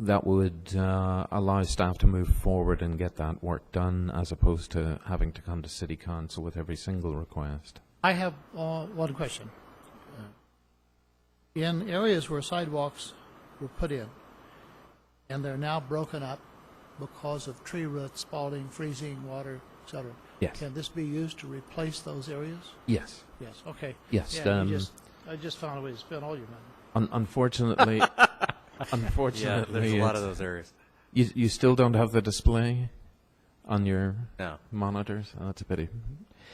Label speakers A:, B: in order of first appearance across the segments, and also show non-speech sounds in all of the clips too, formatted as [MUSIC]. A: that would uh, allow staff to move forward and get that work done, as opposed to having to come to city council with every single request.
B: I have uh, one question. Uh, In areas where sidewalks were put in, and they're now broken up because of tree roots, spalling, freezing, water, et cetera,
A: Yes.
B: can this be used to replace those areas?
A: Yes.
B: Yes, okay.
A: Yes,
B: Yeah, you
A: um,
B: just- I just found a way to spend all your money.
A: Un-
C: [LAUGHS]
A: unfortunately, [LAUGHS]
C: Yeah,
A: unfortunately,
C: there's a lot of
A: it's-
C: those areas.
A: you you still don't have the display on your
C: No,
A: monitors. Oh, that's a pity.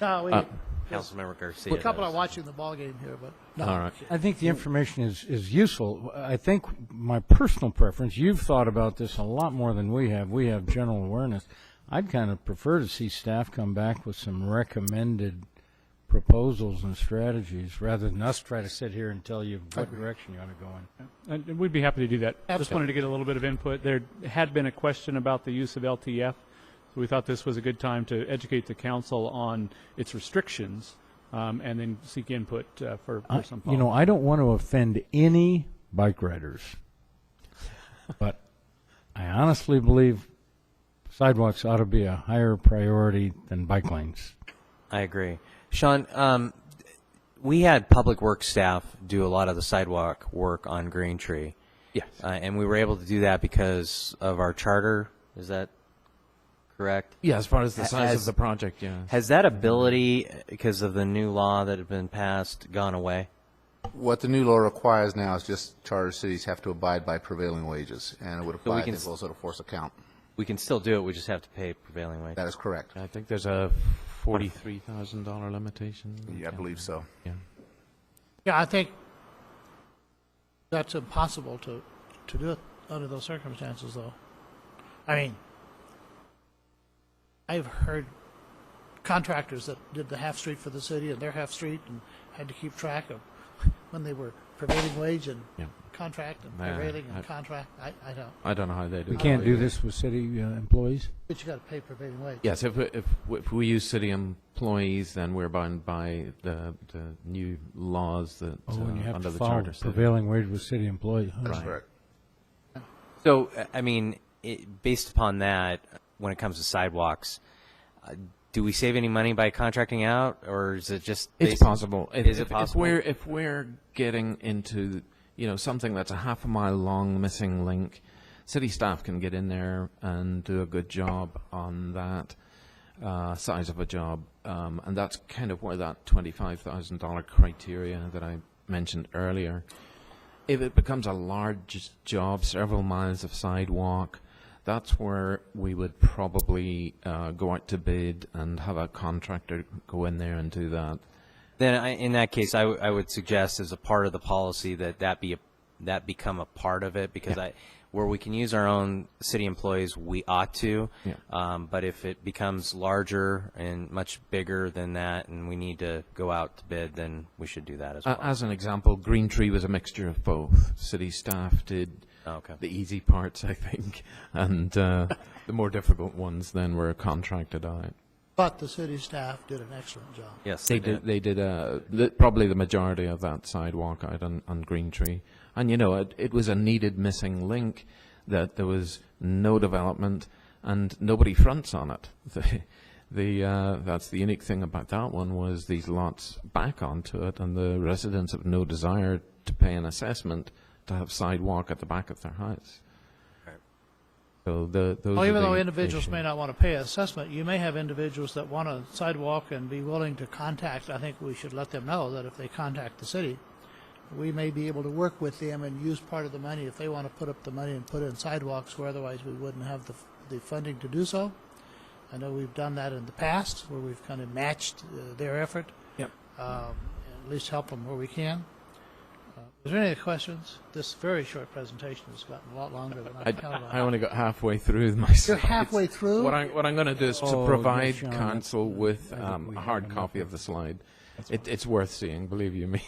B: No, we,
A: Uh,
C: Councilmember Garcia.
B: we're a couple
C: does.
B: are watching the ballgame here, but no.
A: All right.
D: I think the information is, is useful. I think my personal preference, you've thought about this a lot more than we have. We have general awareness. I'd kind of prefer to see staff come back with some recommended proposals and strategies rather than us try to sit here and tell you what direction you ought to go in.
E: And and Uh, we'd be happy to do that. Just wanted to get a little bit of input. There had been a question about the use of LTF, so we thought this was a good time to educate the council on its restrictions, um, and then seek input uh, for for some
D: You know,
E: follow-up.
D: I don't want to offend any bike riders, but I honestly believe sidewalks ought to be a higher priority than bike lanes.
C: I agree. Sean, um, we had public works staff do a lot of the sidewalk work on Green Tree.
A: Yes.
C: Uh, and we were able to do that because of our charter. Is that correct?
A: Yeah, as far as the size of
C: As-
A: the project, yeah.
C: Has that ability, uh, because of the new law that had been passed, gone away?
F: What the new law requires now is just charter cities have to abide by prevailing wages, and it would apply, I
C: can
F: think,
C: s-
F: also to force account.
C: We can still do it. We just have to pay prevailing wage.
F: That is correct.
A: I think there's a forty-three thousand dollar limitation.
F: Yeah, I believe so.
A: Yeah.
B: Yeah, I think that's impossible to, to do it under those circumstances, though. I mean, I've heard contractors that did the half street for the city and their half street and had to keep track of when they were prevailing wage and
A: Yeah.
B: contract and
A: Yeah,
B: prevailing and
A: I-
B: contract. I, I don't.
A: I don't know how they do.
D: We
A: that.
D: can't do this with city uh, employees?
B: But you got to pay prevailing wage.
A: Yes, if, if, if we use city employees, then we're bound by the, the new laws that,
D: Oh, and you
A: uh,
D: have
A: under
D: to
A: the
D: follow
A: charter. city.
D: prevailing wage with city employees. huh?
F: That's correct.
C: So, uh, I mean, it, based upon that, when it comes to sidewalks, uh, do we save any money by contracting out, or is it just?
A: It's
C: based-
A: possible. If-
C: Is
A: if-
C: it possible?
A: If we're, if we're getting into, you know, something that's a half a mile long missing link, city staff can get in there and do a good job on that uh, size of a job. Um, and that's kind of where that $25,000 criteria that I mentioned earlier, if it becomes a large job, several miles of sidewalk, that's where we would probably uh, go out to bid and have a contractor go in there and do that.
C: Then, I, in that case, I, w- I would suggest as a part of the policy that that be a, that become a part of it because I, where we can use our own city employees, we ought to.
A: Yeah.
C: Um, but if it becomes larger and much bigger than that, and we need to go out to bid, then we should do that as well.
A: A- Uh, As an example, Green Tree was a mixture of both. City staff did
C: Oh, Okay.
A: the easy parts, I think, [LAUGHS] and uh, the more difficult ones then were contracted out.
B: But the city staff did an excellent job.
C: yes,
A: They did. They did uh, the, probably the majority of that sidewalk out on, on Green Tree, and you know it, it was a needed missing link that there was no development and nobody fronts on it. [LAUGHS] The, the uh, that's the unique thing about that one was these lots back onto it, and the residents have no desire to pay an assessment to have sidewalk at the back of their house. So the those.
B: Well,
A: are
B: even though
A: the
B: individuals may
A: issues.
B: not want to pay assessment, you may have individuals that want a sidewalk and be willing to contact, I think we should let them know that if they contact the city, we may be able to work with them and use part of the money if they want to put up the money and put in sidewalks where otherwise we wouldn't have the, the funding to do so. I know we've done that in the past where we've kind of matched uh, their effort.
A: Yep.
B: Um, At least help them where we can. Uh, Is there any other questions? This very short presentation has gotten a lot longer than I
A: I,
B: counted on.
A: I only got halfway through my slides.
B: You're halfway through?
A: What I'm, what I'm going to do is
D: Oh,
A: to provide
D: yes, Sean,
A: council with
D: think
A: um,
D: we
A: a
D: have
A: hard
D: enough
A: copy of the slide. It, it's worth seeing, believe you me.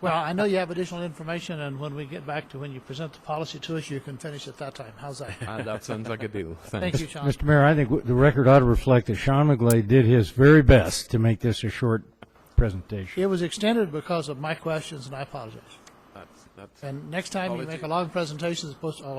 B: Well, I know you have additional information, and when we get back to when you present the policy to us, you can finish at that time. How's that?
A: [LAUGHS] Uh, that sounds like a [LAUGHS] deal. Thanks.
B: Thank you, Sean.
D: Mr. Mayor, I think w- the record ought to reflect that Sean McGlade did his very best to make this a short presentation.
B: It was extended because of my questions, and I apologize.
A: That's- that's-
B: And next time you make a long presentation, it's supposed to,